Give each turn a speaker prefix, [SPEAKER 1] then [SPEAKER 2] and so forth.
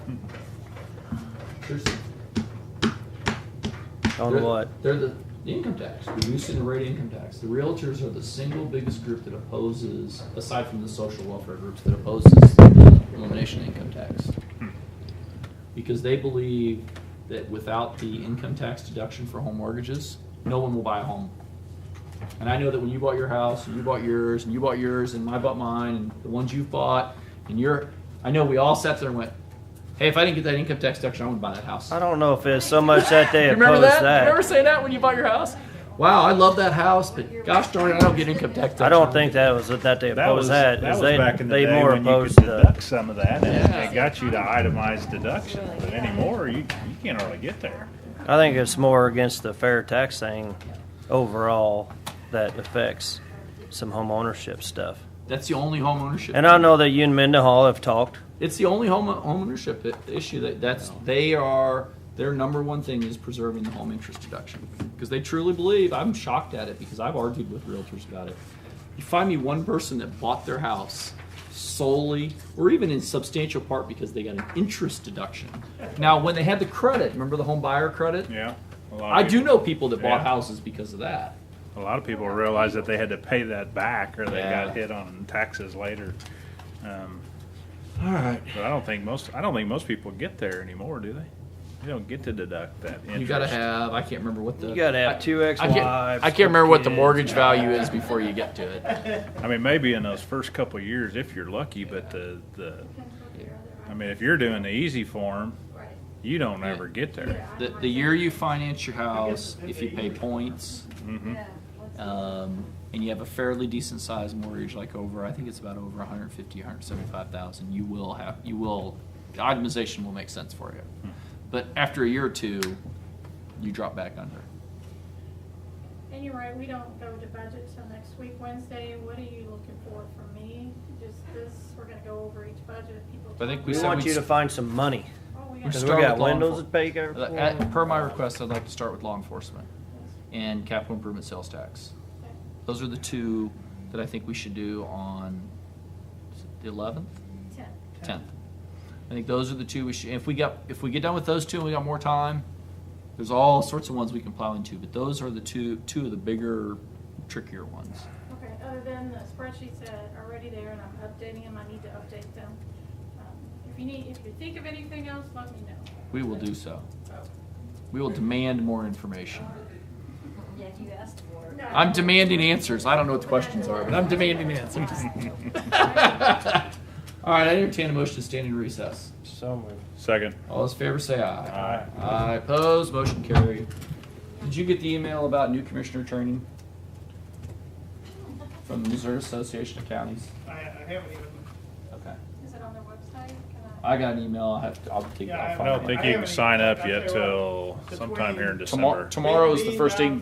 [SPEAKER 1] There's,
[SPEAKER 2] On
[SPEAKER 1] they're-
[SPEAKER 2] what?
[SPEAKER 1] They're the, the income tax, reducing the rate of income tax. The realtors are the single biggest group that opposes, aside from the social welfare groups, that opposes the elimination of income tax. Because they believe that without the income tax deduction for home mortgages, no one will buy a home. And I know that when you bought your house, and you bought yours, and you bought yours, and I bought mine, and the ones you bought, and your, I know we all sat there and went, hey, if I didn't get that income tax deduction, I wouldn't buy that house.
[SPEAKER 2] I don't know if it's so much that they
[SPEAKER 1] You remember
[SPEAKER 2] oppose
[SPEAKER 1] that? You
[SPEAKER 2] that.
[SPEAKER 1] remember saying that when you bought your house? Wow, I love that house, but gosh darn it, I don't get income tax.
[SPEAKER 2] I don't think that was that they
[SPEAKER 3] That
[SPEAKER 2] opposed
[SPEAKER 3] was
[SPEAKER 2] that.
[SPEAKER 3] that
[SPEAKER 2] is
[SPEAKER 3] was
[SPEAKER 2] they,
[SPEAKER 3] back in the
[SPEAKER 2] they
[SPEAKER 3] day
[SPEAKER 2] more
[SPEAKER 3] when you
[SPEAKER 2] opposed
[SPEAKER 3] could
[SPEAKER 2] the.
[SPEAKER 3] deduct some of that, and
[SPEAKER 1] Yeah.
[SPEAKER 3] it got you to itemized deductions. But anymore, you you can't really get there.
[SPEAKER 2] I think it's more against the fair tax thing overall that affects some home ownership stuff.
[SPEAKER 1] That's the only home ownership.
[SPEAKER 2] And I know that you and Mendenhall have talked.
[SPEAKER 1] it's the only home home ownership i- issue that that's they are their number one thing is preserving the home interest deduction because they truly believe. I'm shocked at it because I've argued with realtors about it. You find me one person that bought their house solely or even in substantial part because they got an interest deduction. Now, when they had the credit, remember the home buyer credit?
[SPEAKER 3] Yeah, a lot of
[SPEAKER 1] I do
[SPEAKER 3] people-
[SPEAKER 1] know people that bought
[SPEAKER 3] Yeah.
[SPEAKER 1] houses because of that.
[SPEAKER 3] A lot of people realized that they had to pay that back, or they
[SPEAKER 1] Yeah.
[SPEAKER 3] got hit on taxes later. Um,
[SPEAKER 1] All right.
[SPEAKER 3] but I don't think most I don't think most people get there anymore, do they? They don't get to deduct that. Interest.
[SPEAKER 1] You gotta have. I can't remember what the.
[SPEAKER 2] You gotta have two
[SPEAKER 1] I can't,
[SPEAKER 2] ex-wives.
[SPEAKER 1] I can't remember what the mortgage value is before you get to it.
[SPEAKER 3] I mean, maybe in those first couple of years, if you're lucky, but the the. I mean, if you're doing the easy form, you don't ever get there.
[SPEAKER 1] The, the year you finance your house, if you pay points,
[SPEAKER 3] hmm
[SPEAKER 1] um, and you have a fairly decent sized mortgage, like over, I think it's about over 150, 175,000, you will have, you will, the itemization will make sense for you. But after a year or two, you drop back under.
[SPEAKER 4] And you're right, we don't go to budget till next week, Wednesday, what are you looking for from me? Just this, we're gonna go over each budget, people.
[SPEAKER 1] I think
[SPEAKER 2] We,
[SPEAKER 1] We
[SPEAKER 4] talk
[SPEAKER 1] said
[SPEAKER 2] want
[SPEAKER 1] we'd
[SPEAKER 2] you to
[SPEAKER 1] s-
[SPEAKER 2] find some money
[SPEAKER 4] about- Oh, we
[SPEAKER 1] we
[SPEAKER 4] got
[SPEAKER 2] because we
[SPEAKER 1] start
[SPEAKER 2] got
[SPEAKER 1] with law
[SPEAKER 2] windows to
[SPEAKER 1] enfor-
[SPEAKER 2] pay. our-
[SPEAKER 1] Uh, at- Per my request, I'd like to start with law enforcement and capital improvement sales tax. Those are the two that I think we should do on the eleventh,
[SPEAKER 4] ten.
[SPEAKER 1] tenth. I think those are the two we should, if we got, if we get done with those two and we got more time, there's all sorts of ones we can plow into, but those are the two, two of the bigger, trickier ones.
[SPEAKER 4] Okay, other than the spreadsheets that are already there and I'm updating them, I need to update them. Um, If you need, if you think of anything else, let me know.
[SPEAKER 1] We will do so.
[SPEAKER 4] So-
[SPEAKER 1] We will demand more information.
[SPEAKER 5] Yeah, you asked for it.
[SPEAKER 1] I'm demanding answers. I don't know what the questions are, but I'm demanding answers. All right, I entertain a motion to stand in recess.
[SPEAKER 2] So moved.
[SPEAKER 3] Second.
[SPEAKER 1] All those in favor say aye. Aye. Aye, opposed, motion carried. Did you get the email about new commissioner training? From the Missouri Association of Counties?
[SPEAKER 6] I, I haven't even.
[SPEAKER 1] Okay.
[SPEAKER 4] Is it on their website? Can
[SPEAKER 1] I got an email, I'll have to, I'll take,
[SPEAKER 6] Yeah, I
[SPEAKER 1] I'll
[SPEAKER 3] I
[SPEAKER 1] find
[SPEAKER 3] don't
[SPEAKER 1] it.
[SPEAKER 3] think you can sign up yet till sometime here in December.
[SPEAKER 1] Tomorrow, tomorrow is the first day,